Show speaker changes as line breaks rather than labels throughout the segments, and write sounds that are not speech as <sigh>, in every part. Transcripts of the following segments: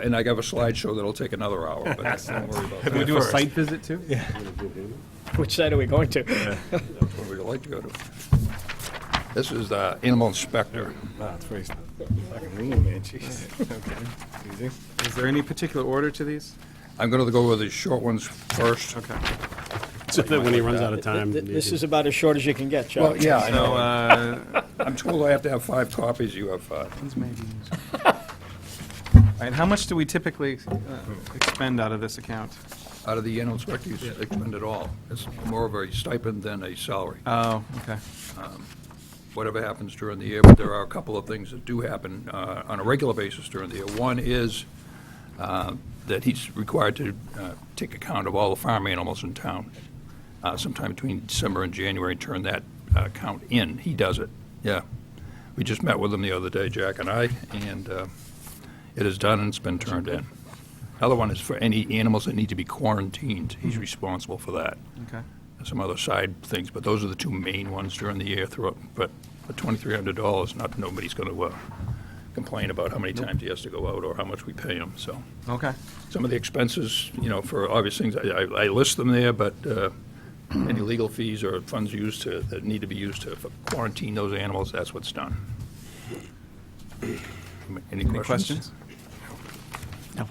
And I have a slideshow that'll take another hour, but that's, don't worry
<laughs>
about that.
we do a site visit too?
<laughs> Which side are we going to?
That's what we'd like to go to. This is the animal inspector.
Nah, it's pretty, fucking mean, man, jeez. Okay, easy. Is there any particular order to these?
I'm gonna go with the short ones first.
Okay.
So that when he runs out of time.
Th- This is about as short as you can get, Charlie.
Well, yeah, I
So,
know.
uh,
I'm told I have to have five copies, you have uh, five.
These may be used. <laughs> And how much do we typically uh, expend out of this account?
Out of the animal inspector, you expend it all. It's more of a stipend than a salary.
Oh, okay.
whatever happens during the year, but there are a couple of things that do happen uh, on a regular basis during the year. One is uh, that he's required to uh, take account of all the farm animals in town uh, sometime between December and January, and turn that uh, count in. He does it, yeah. We just met with him the other day, Jack and I, and uh, it is done and it's been turned in. Other one is for any animals that need to be quarantined. He's responsible for that
Okay.
some other side things, but those are the two main ones during the year throughout. But for twenty-three hundred dollars, not, nobody's gonna, uh, complain about how many times he has to go out or how much we pay him, so.
Okay.
Some of the expenses, you know, for obvious things, I, I I list them there, but, uh, any legal fees or funds used to, that need to be used to quarantine those animals, that's what's done. Any
Any questions?
questions?
So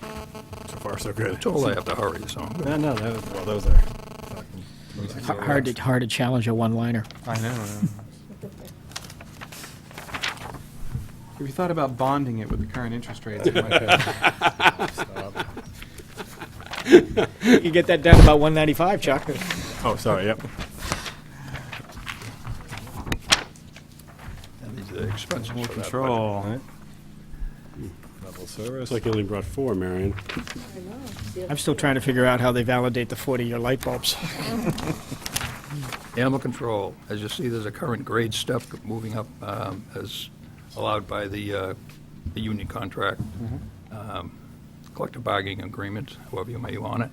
far, so good.
Totally have to hurry, so.
<laughs> No, no, that was, well, those are.
Har- Hard to, hard to challenge a one-liner.
I know. Have you thought about bonding it with the current interest rates? <laughs> It might be-
You can get that down to about 195, Chuck.
Oh, sorry, yep.
and these are the expenses
More
for that, but-
control.
Level service. Like you only brought four, Marion.
<laughs> I'm still trying to figure out how they validate the 40-year light bulbs. <laughs>
Animal control, as you see, there's a current grade step moving up um, as allowed by the, uh, the union contract, um, collective bargaining agreement, however you may want it.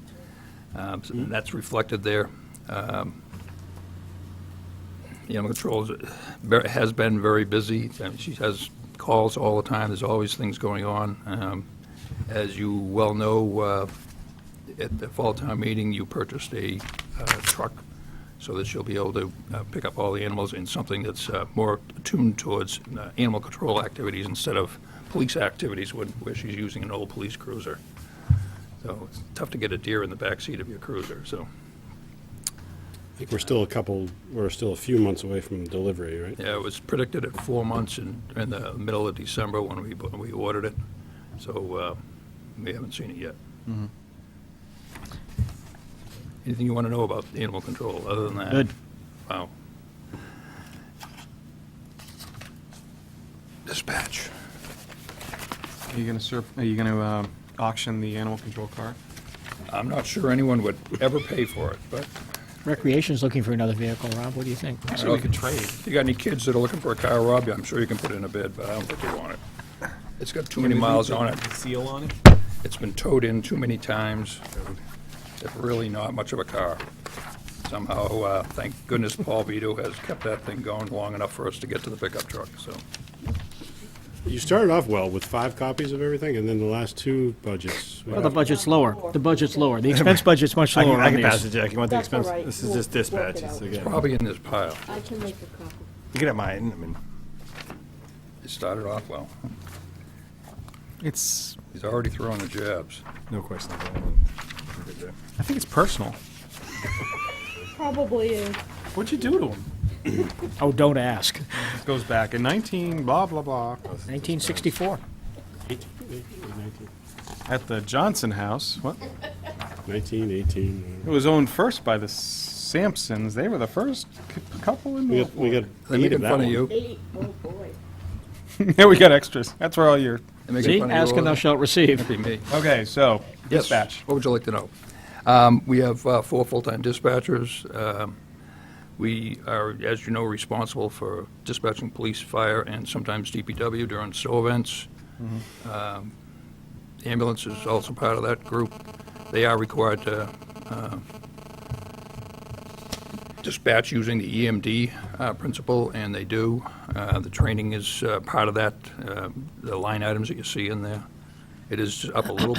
Um, so That's reflected there. Um, The Animal control is- ver- has been very busy. and She has calls all the time. There's always things going on. Um, As you well know, uh, at the fall town meeting, you purchased a uh, truck so that she'll be able to uh, pick up all the animals in something that's uh, more tuned towards uh, animal control activities instead of police activities when- where she's using an old police cruiser. So it's tough to get a deer in the backseat of your cruiser, so,
I think we're still a couple, we're still a few months away from delivery, right?
yeah, it was predicted at four months in, in the middle of December when we, bu- we ordered it, so uh, we haven't seen it yet. Anything you want to know about animal control, other than that?
Good.
Wow. Dispatch.
Are you gonna serve, are you gonna uh, auction the animal control car?
I'm not sure anyone would ever pay for it, but
Recreation's looking for another vehicle, Rob, what do you think?
Actually, we could trade.
if you got any kids that are looking for a car, Rob, I'm sure you can put in a bid, but I don't think they want it. It's got too many miles on it.
Seal on it?
It's been towed in too many times. It's really not much of a car. Somehow, uh, thank goodness Paul Vito has kept that thing going long enough for us to get to the pickup truck, so.
You started off well with five copies of everything, and then the last two budgets. we
Well, the
got-
budget's lower, the budget's lower, <laughs> the expense budget's much
I
lower
can, I
on
can pass
these.
it, Jack. You want the
That's all
expense?
right.
This is
We'll
just
work it out.
dispatches again.
Probably in this pile.
I can make a copy.
You can have mine, I mean,
It started off well.
It's,
He's already throwing the jabs.
no question. about that. Good job.
I think it's personal.
Probably is.
What'd you do to him?
Oh, don't ask.
It goes back in 19, blah, blah, blah.
1964.
Eight- eight- nineteen-
At the Johnson House. What?
Nineteen, eighteen.
It was owned first by the Sampsons. They were the first c- couple in
We got, we
Norfolk.
got
They're
eight
making
of that
fun of
one.
you.
Eight. Oh, boy.
<laughs> Yeah, we got extras. That's where all your.
They're making
See,
fun of you
ask
all
and
the-
thou shalt receive.
Be me.
Okay, so
Yes.
dispatch.
What would you like to know? Um, We have uh, four full-time dispatchers. Um, We are, as you know, responsible for dispatching police, fire, and sometimes DPW during snow events. Um, Ambulance is also part of that group. They are required to uh, dispatch using the EMD uh, principle, and they Um, do. Uh, The training is uh, part of that, uh, the line items that you see in there. It is up a little